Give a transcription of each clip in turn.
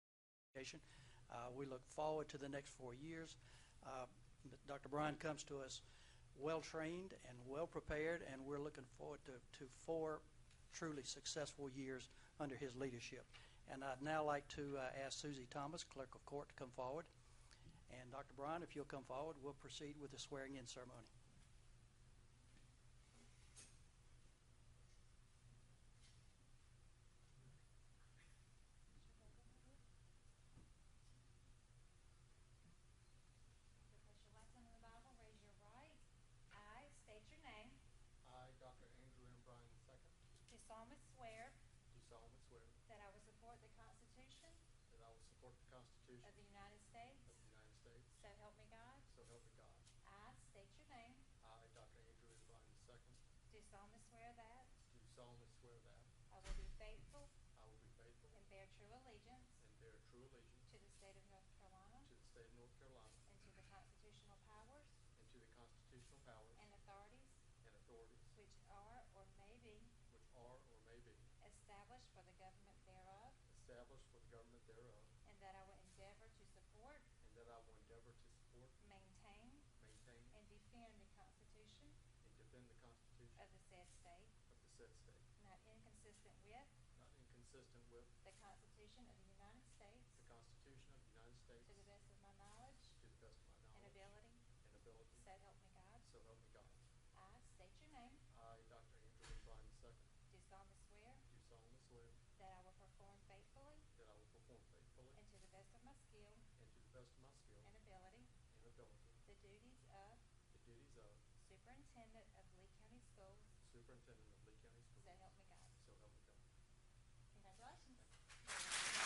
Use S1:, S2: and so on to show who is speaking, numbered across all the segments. S1: education. Uh, We look forward to the next four years. Uh, Dr. Bryan comes to us well-trained and well-prepared, and we're looking forward to, to four truly successful years under his leadership. And I'd now like to uh, ask Susie Thomas, Clerk of Court, to come forward. And Dr. Bryan, if you'll come forward, we'll proceed with the swearing-in ceremony.
S2: You place your left hand on the Bible, raise your right. I state your name.
S3: I, Dr. Andrew M. Bryan II,
S2: Do solemnly swear
S3: do solemnly swear
S2: that I will support the Constitution
S3: that I will support the Constitution
S2: of the United
S3: of
S2: States.
S3: the United States,
S2: So help me God.
S3: so help me God.
S2: I state your name.
S3: I, Dr. Andrew M. Bryan II,
S2: Do solemnly swear that
S3: do solemnly swear that
S2: I will be faithful
S3: I will be faithful
S2: and bear true allegiance
S3: and bear true allegiance
S2: to the state of North Carolina
S3: to the state of North Carolina
S2: and to the constitutional powers
S3: and to the constitutional powers
S2: and authorities
S3: and authorities
S2: which are or may be
S3: which are or may be
S2: established for the government thereof,
S3: established for the government thereof,
S2: and that I will endeavor to support,
S3: and that I will endeavor to support, maintain,
S2: maintain, And defend the Constitution
S3: and defend the
S2: of
S3: Constitution
S2: the said state,
S3: of the said state,
S2: not inconsistent with
S3: not inconsistent with
S2: the Constitution of the United States,
S3: the Constitution of the United States,
S2: to the best of my knowledge
S3: to the best of my
S2: and
S3: knowledge.
S2: ability,
S3: and ability.
S2: so help me God.
S3: So help me God.
S2: I state your name,
S3: I, Dr. Andrew M. Bryan II,
S2: do solemnly swear
S3: do solemnly swear
S2: that I will perform faithfully
S3: that I will perform faithfully
S2: and to the best of my skill
S3: and to the best of my skill
S2: and ability,
S3: and ability
S2: the duties of
S3: the duties of
S2: Superintendent of Lee County Schools,
S3: Superintendent of Lee County Schools.
S2: so help me God.
S3: So help me God.
S2: Congratulations.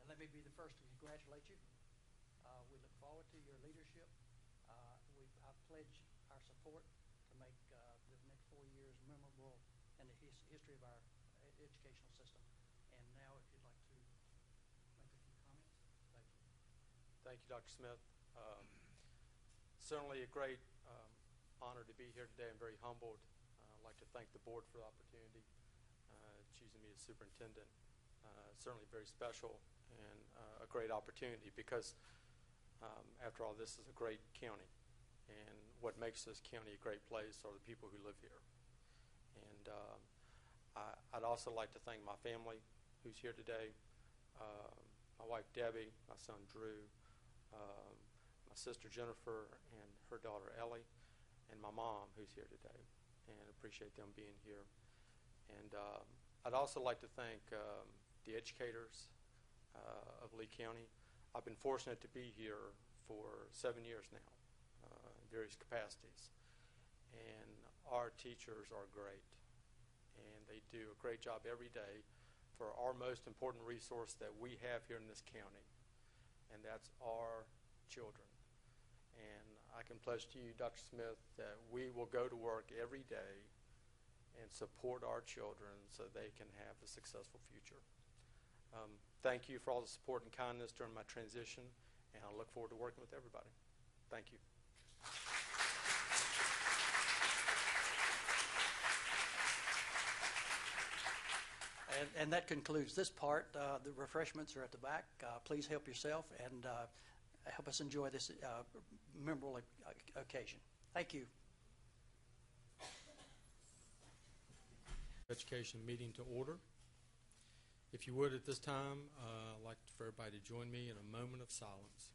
S1: And let me be the first to congratulate you. Uh, We look forward to your leadership. Uh, We, I pledge our support to make uh, the next four years memorable in the his- history of our e- educational system. And now, if you'd like to make a few comments, thank you.
S4: Thank you, Dr. Smith. Um, Certainly a great um, honor to be here today. I'm very humbled. Uh, I'd like to thank the board for the opportunity, uh, choosing me as superintendent. Uh, Certainly very special and uh, a great opportunity because, um, after all, this is a great county. And what makes this county a great place are the people who live here. And um, I- I'd also like to thank my family who's here today, um, my wife Debbie, my son Drew, um, my sister Jennifer, and her daughter Ellie, and my mom who's here today. And appreciate them being here. And um, I'd also like to thank um, the educators uh, of Lee County. I've been fortunate to be here for seven years now, uh, in various capacities. And our teachers are great. And they do a great job every day for our most important resource that we have here in this county, and that's our children. And I can pledge to you, Dr. Smith, that we will go to work every day and support our children so they can have a successful future. Um, thank you for all the support and kindness during my transition, and I look forward to working with everybody. Thank you.
S1: And, and that concludes this part. Uh, The refreshments are at the back. Uh, Please help yourself and uh, help us enjoy this uh, memorable o- occasion. Thank you.
S4: Education meeting to order. If you would, at this time, uh, I'd like for everybody to join me in a moment of silence.